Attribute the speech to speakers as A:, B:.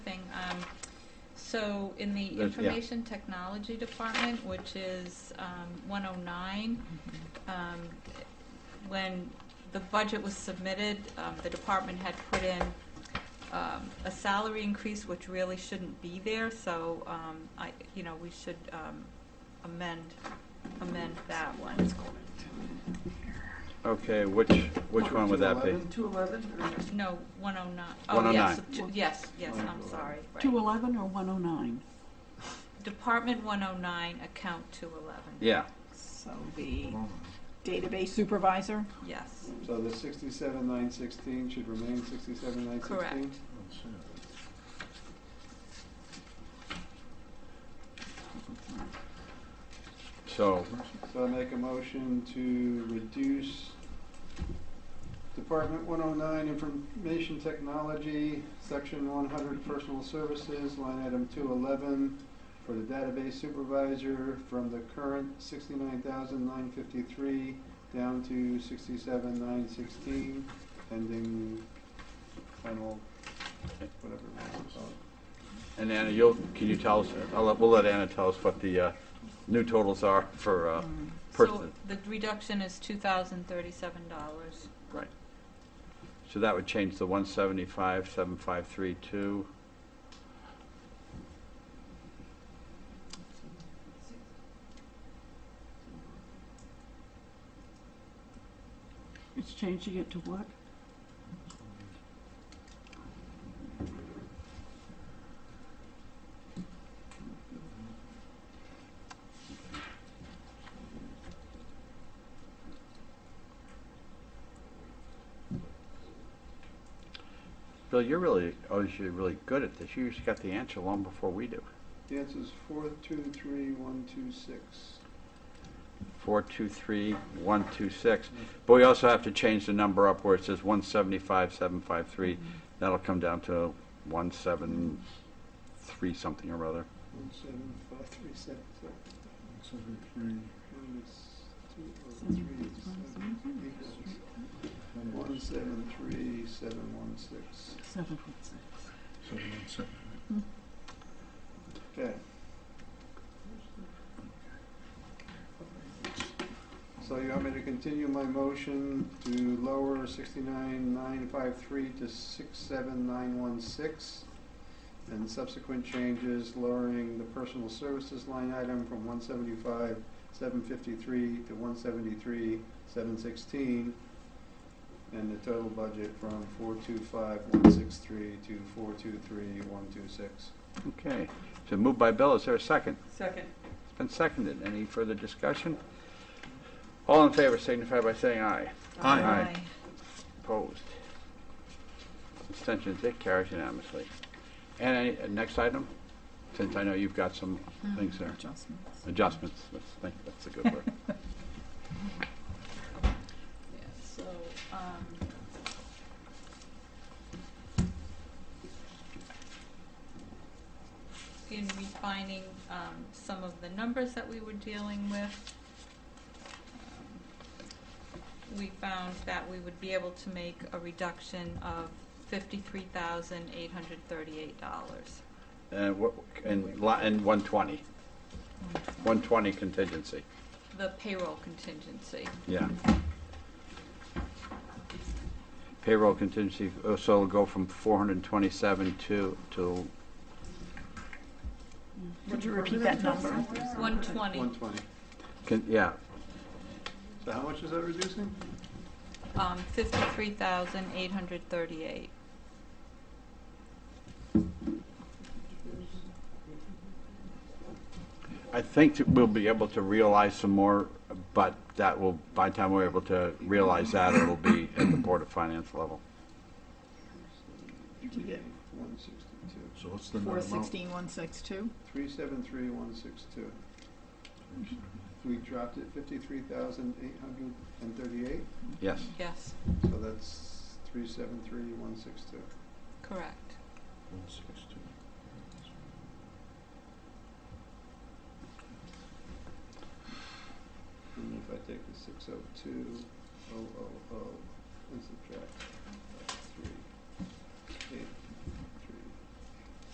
A: Um, So in the
B: There's- yeah.
A: Information Technology Department, which is um, 109, um, when the budget was submitted, um, the department had put in um, a salary increase, which really shouldn't be there, so um, I, you know, we should um, amend, amend that one.
B: Okay, which, which one would that be?
C: 211, 211,
A: No, 109. Oh,
B: 109.
A: yes, t- Yes, yes, I'm sorry. right.
D: 211 or 109?
A: Department 109, account 211.
B: Yeah,
D: So the
C: or-
D: database supervisor?
A: Yes,
E: So the sixty-seven nine sixteen should remain sixty-seven nine sixteen?
A: correct.
B: so,
E: So I make a motion to reduce Department one oh nine, Information Technology, Section one hundred, Personal Services, line item two eleven, for the database supervisor from the current sixty-nine thousand nine fifty-three down to sixty-seven nine sixteen, pending final, whatever. we want to call it.
B: and Anna, you'll, can you tell us, I'll let, we'll let Anna tell us what the, uh, new totals are for, uh,
A: Um, So
B: person.
A: the reduction is $2,037.
B: Right. So that would change the one seventy-five, seven five three two.
D: It's changing it to what?
B: Bill, you're really, oh, you're really good at this. You usually got the answer long before we do.
E: The answer's four, two, three, one, two, six.
B: Four two three, one two six. But we also have to change the number up where it says one seventy-five, seven five three. That'll come down to one seven three something or other.
E: One seven five three seven seven. Minus two oh three seven equals one seven three seven one six.
D: 7.6.
E: Okay. So you want me to continue my motion to lower sixty-nine nine five three to six seven nine one six? And subsequent changes lowering the personal services line item from one seventy-five seven fifty-three to one seventy-three seven sixteen. And the total budget from four two five one six three to four two three one two six.
B: Okay. So moved by Bill. Is there a second?
A: Second.
B: It's been seconded. Any further discussion? All in favor signify by saying aye. Aye. Aye. Opposed? Abstentions, it carries unanimously. And any, uh, next item, since I know you've got some things
A: Hmm.
B: there,
D: Adjustments.
B: adjustments, let's think, that's a good word.
A: Yeah, so, um, in refining, um, some of the numbers that we were dealing with, um, we found that we would be able to make a reduction of fifty-three thousand eight hundred thirty-eight dollars.
B: And what, and li, and one twenty, one twenty contingency,
A: The payroll contingency.
B: yeah. Payroll contingency, uh, so it'll go from four hundred and twenty-seven to, to
D: Would you repeat that number?
A: One twenty,
E: One twenty.
B: Can, yeah,
E: So how much is that reducing?
A: um, fifty-three thousand eight hundred thirty-eight.
B: I think that we'll be able to realize some more, but that will, by the time we're able to realize that, it'll be at the Board of Finance level.
D: you get?
E: One sixty-two.
C: So what's the net amount?
D: 416, 162?
E: Three seven three one six two. We dropped it fifty-three thousand eight hundred and thirty-eight,
B: Yes,
A: Yes,
E: so that's three seven three one six two.
A: correct.
C: One six two.
E: And if I take the six oh two, oh oh oh, and subtract